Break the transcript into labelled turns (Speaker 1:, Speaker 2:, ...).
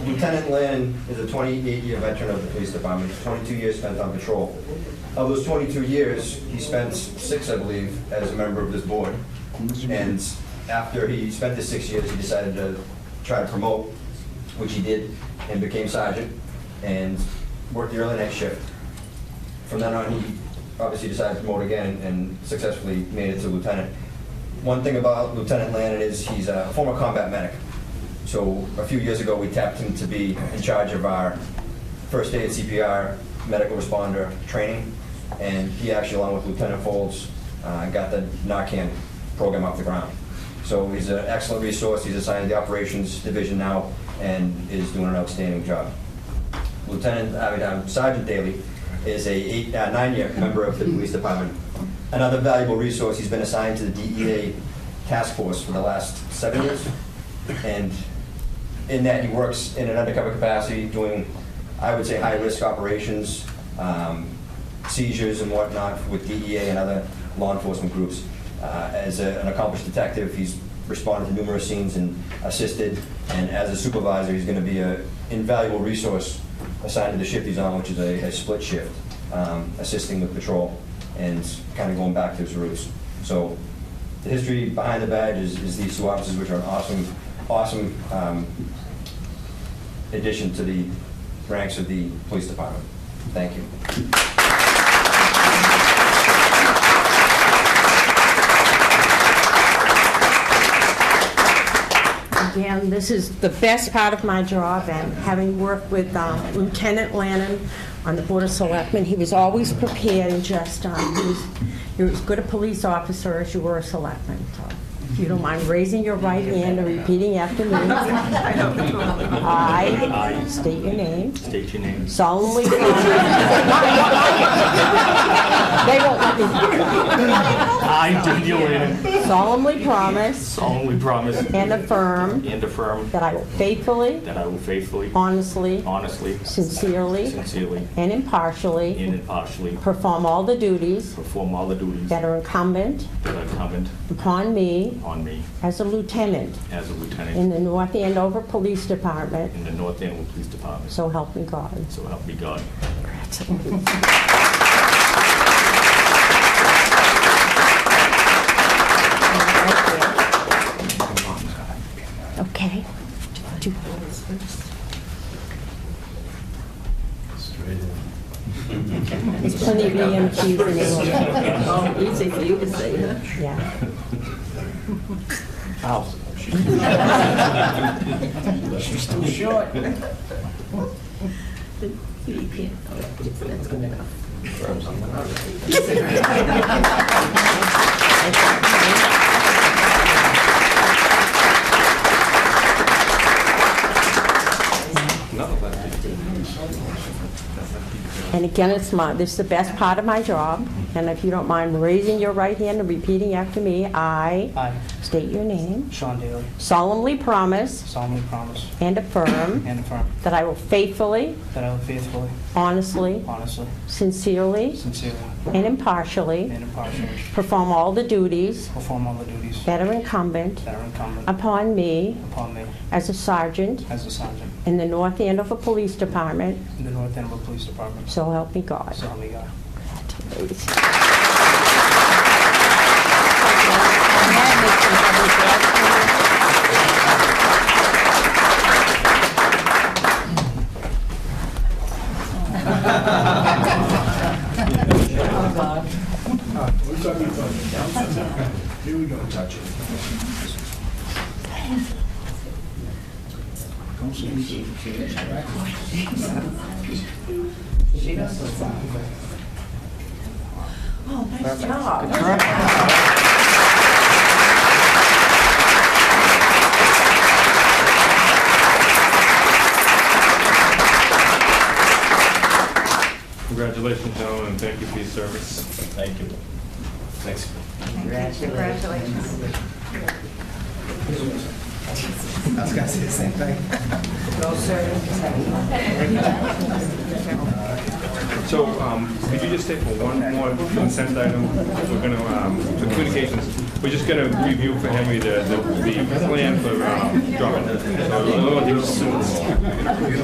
Speaker 1: Lieutenant Lynn is a 28-year veteran of the police department, 22 years spent on patrol. Of those 22 years, he spent six, I believe, as a member of this board. And after he spent the six years, he decided to try to promote, which he did, and became sergeant, and worked the early night shift. From then on, he obviously decided to promote again and successfully made it to lieutenant. One thing about Lieutenant Lannon is he's a former combat medic. So a few years ago, we tapped him to be in charge of our first aid CPR medical responder training. And he actually, along with Lieutenant Folds, uh, got the Narcan program off the ground. So he's an excellent resource. He's assigned to the operations division now and is doing an outstanding job. Lieutenant, I mean, um, Sergeant Daly is a eight, uh, nine-year member of the police department. Another valuable resource, he's been assigned to the DEA task force for the last seven years. And in that, he works in an undercover capacity doing, I would say, high-risk operations, um, seizures and whatnot with DEA and other law enforcement groups. Uh, As a- an accomplished detective, he's responded to numerous scenes and assisted, and as a supervisor, he's going to be an invaluable resource assigned to the shift he's on, which is a a split shift, um, assisting with patrol and kind of going back to his roots. So the history behind the badge is is these two officers, which are an awesome, awesome um, addition to the ranks of the police department. Thank you.
Speaker 2: Again, this is the best part of my job, and having worked with uh, Lieutenant Lannon on the Board of Selectmen, he was always prepared and just, uh, he was, you're as good a police officer as you were a selectman, so if you don't mind raising your right hand and repeating after me. I state your name,
Speaker 3: State your name.
Speaker 2: solemnly promise. They won't let
Speaker 3: I, Daniel Lanning,
Speaker 2: me, solemnly promise
Speaker 3: solemnly promise
Speaker 2: and affirm
Speaker 3: and affirm
Speaker 2: that I will faithfully,
Speaker 3: that I will faithfully,
Speaker 2: honestly,
Speaker 3: honestly,
Speaker 2: sincerely,
Speaker 3: sincerely,
Speaker 2: and impartially
Speaker 3: and impartially
Speaker 2: perform all the duties
Speaker 3: perform all the duties
Speaker 2: that
Speaker 3: that
Speaker 2: are incumbent
Speaker 3: are incumbent
Speaker 2: upon me
Speaker 3: on me
Speaker 2: as a lieutenant
Speaker 3: as a
Speaker 2: in
Speaker 3: lieutenant
Speaker 2: the North Andover Police Department,
Speaker 3: in the North Andover Police Department.
Speaker 2: so help me God.
Speaker 3: So help me God.
Speaker 2: Okay. Do- There's plenty of EMTs in England,
Speaker 4: Oh, easy for you to say, huh?
Speaker 2: yeah.
Speaker 4: You can't, oh, that's good enough.
Speaker 2: And again, it's my, this is the best part of my job, and if you don't mind raising your right hand and repeating after me, I
Speaker 5: I,
Speaker 2: state your name,
Speaker 5: Sean Daly,
Speaker 2: solemnly promise
Speaker 5: solemnly promise
Speaker 2: and affirm
Speaker 5: and affirm
Speaker 2: that I will faithfully,
Speaker 5: that I will faithfully,
Speaker 2: honestly,
Speaker 5: honestly,
Speaker 2: sincerely,
Speaker 5: sincerely,
Speaker 2: and impartially
Speaker 5: and impartially
Speaker 2: perform all the duties
Speaker 5: perform all the duties that
Speaker 2: that are incumbent
Speaker 5: are incumbent
Speaker 2: upon me
Speaker 5: upon me
Speaker 2: as a sergeant
Speaker 5: as a sergeant
Speaker 2: in the North Andover Police Department,
Speaker 5: in the North Andover Police Department.
Speaker 2: so help me God.
Speaker 5: So help me God.
Speaker 6: Congratulations, gentlemen, and thank you for your service. Thank you. Thanks.
Speaker 4: Congratulations.
Speaker 7: I was gonna say the same thing.
Speaker 3: So, um, could you just stay for one more consent item? We're gonna, um, for communications, we're just gonna review for Henry the, the the plan for um, dropping. the- so, we'll do-